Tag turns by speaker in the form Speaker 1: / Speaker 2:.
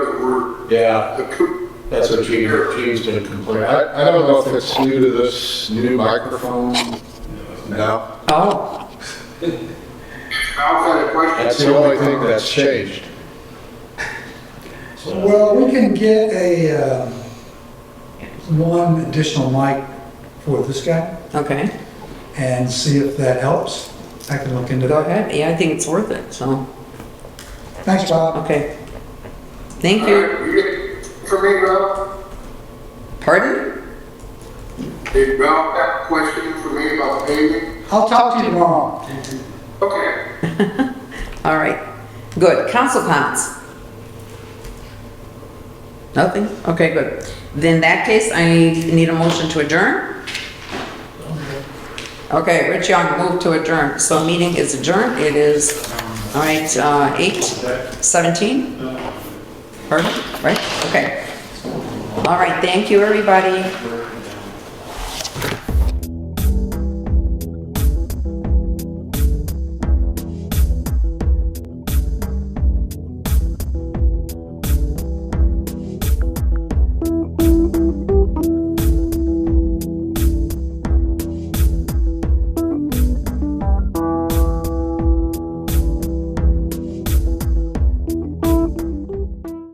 Speaker 1: Yeah,
Speaker 2: The coo-
Speaker 1: that's what Gene, Gene's been complaining.
Speaker 3: I, I don't know if it's new to this new microphone. No,
Speaker 4: Oh,
Speaker 2: Al's had a question.
Speaker 3: that's the only thing that's changed.
Speaker 5: Well, we can get a, uh, one additional mic for this guy
Speaker 4: okay.
Speaker 5: and see if that helps. I can look into
Speaker 4: Go
Speaker 5: that.
Speaker 4: ahead. Yeah, I think it's worth it, so,
Speaker 5: Thanks, Bob.
Speaker 4: okay. Thank
Speaker 2: All
Speaker 4: you.
Speaker 2: right, you get For me, Ralph,
Speaker 4: Pardon?
Speaker 2: did Ralph have a question for me about paving?
Speaker 5: I'll talk to you tomorrow.
Speaker 2: Okay.
Speaker 4: All right, good. Council comments? Nothing? Okay, good. Then in that case, I need a motion to adjourn? Okay, Rich Young, move to adjourn. So meeting is adjourned. It is, all right, uh, eight seventeen? Pardon? Right? Okay. All right, thank you, everybody.